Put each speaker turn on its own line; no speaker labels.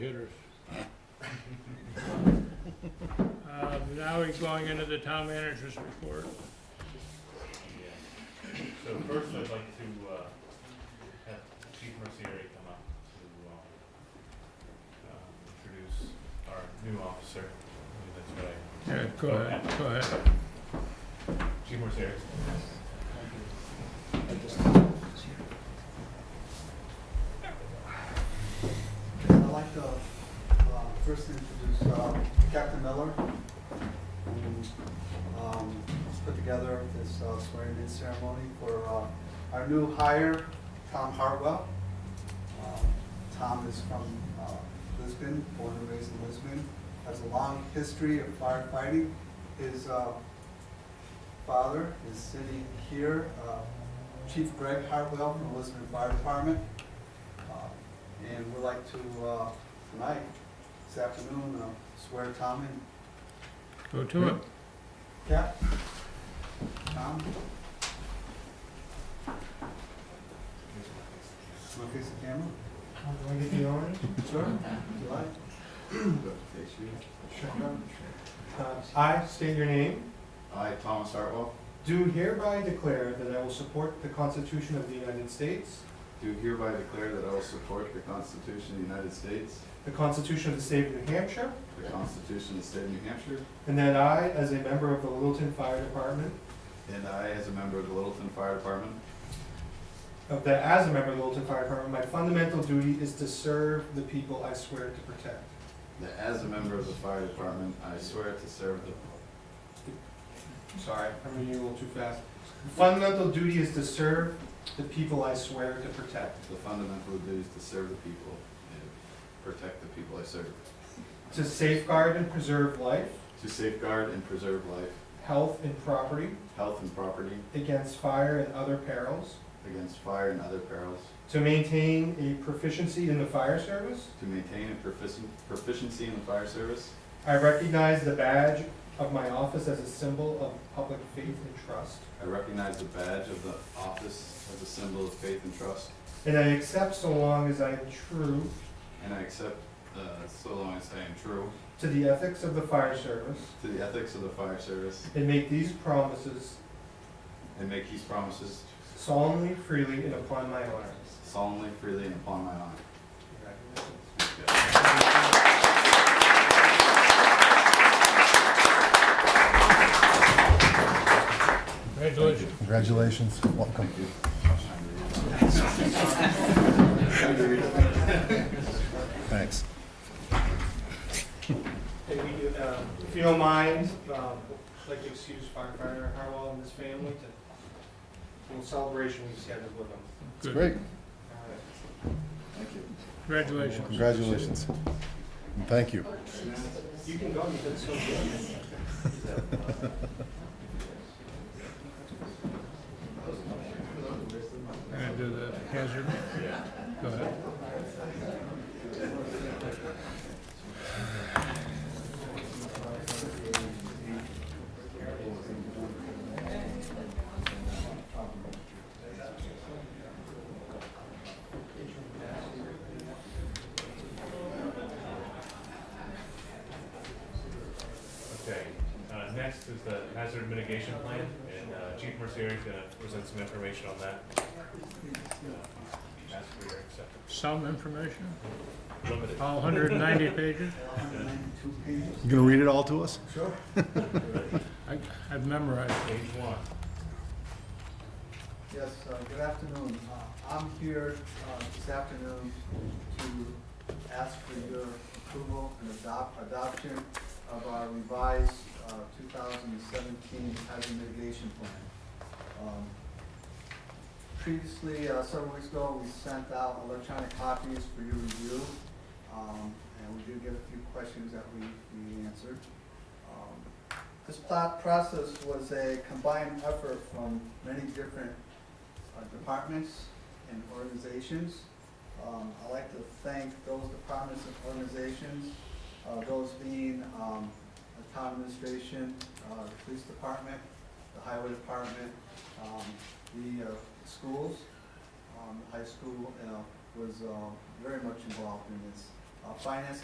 Computers. Um, Now we're going into the town manager's report.
So first, I'd like to uh, have Chief Mercier come up to um, um, introduce our new officer. I believe That's
Yeah,
right.
go ahead, go ahead.
Chief Mercier.
I'd like to uh, first introduce uh, Captain Miller, who um, has put together this uh, swearing-in ceremony for uh, our new hire, Tom Hartwell. Um, Tom is from uh, Lisbon, born and raised in Lisbon, has a long history of firefighting. His uh, father is sitting here, uh, Chief Greg Hartwell from the Lisbon Fire Department. Uh, And we'd like to, uh, tonight, this afternoon, uh, swear Tom in.
Go to it.
Cap? Tom? Want to face the camera?
Do I get the honors?
Sure. If you like.
Uh, I state your name.
I, Thomas Hartwell,
Do hereby declare that I will support the Constitution of the United States,
do hereby declare that I will support the Constitution of the United States,
the Constitution of the State of New Hampshire,
the Constitution of the State of New Hampshire,
and that I, as a member of the Littleton Fire Department,
and I, as a member of the Littleton Fire Department,
of that as a member of the Littleton Fire Department, my fundamental duty is to serve the people I swear to protect.
that as a member of the Fire Department, I swear to serve the,
Sorry, I'm reading a little too fast. Fundamental duty is to serve the people I swear to protect.
the fundamental duties to serve the people and protect the people I serve,
To safeguard and preserve life,
to safeguard and preserve life,
health, and property
health and property
against fire and other perils.
against fire and other perils,
To maintain a proficiency in the fire service,
to maintain a proficien- proficiency in the fire service.
I recognize the badge of my office as a symbol of public faith and trust,
I recognize the badge of the office as a symbol of faith and trust.
and I accept so long as I am true
And I accept, uh, so long as I am true
to the ethics of the fire service
to the ethics of the fire service
and make these promises
and make these promises
solemnly, freely, and upon my honor.
solemnly, freely, and upon my honor.
Congratulations.
Congratulations.
Congratulations, welcome. Thanks.
Hey, we, do, uh, if you don't mind, um, I'd like to excuse firefighter Harwell and his family to, a little celebration we scheduled with them.
It's great,
All right.
Congratulations.
congratulations. And Thank you.
You can go, you've done so good.
I'm gonna do the hazard. Go ahead.
Okay, uh, next is the hazard mitigation plan, and uh, Chief Mercier is gonna present some information on that. Uh, Ask for your acceptance.
Some information,
Limited.
all 190 pages.
192 pages.
You gonna read it all to us?
Sure.
I- I've memorized.
Page one.
Yes, uh, good afternoon. Uh, I'm here uh, this afternoon to ask for your approval and adopt, adoption of our revised uh, 2017 hazard mitigation plan. Um, Previously, uh, several weeks ago, we sent out electronic copies for your review, um, and we did get a few questions that we we answered. Um, this plot process was a combined effort from many different uh, departments and organizations. Um, I'd like to thank those departments and organizations, uh, those being, um, the town administration, uh, the police department, the highway department, um, the, uh, schools. Um, the high school, uh, was, uh, very much involved in this Uh, Finance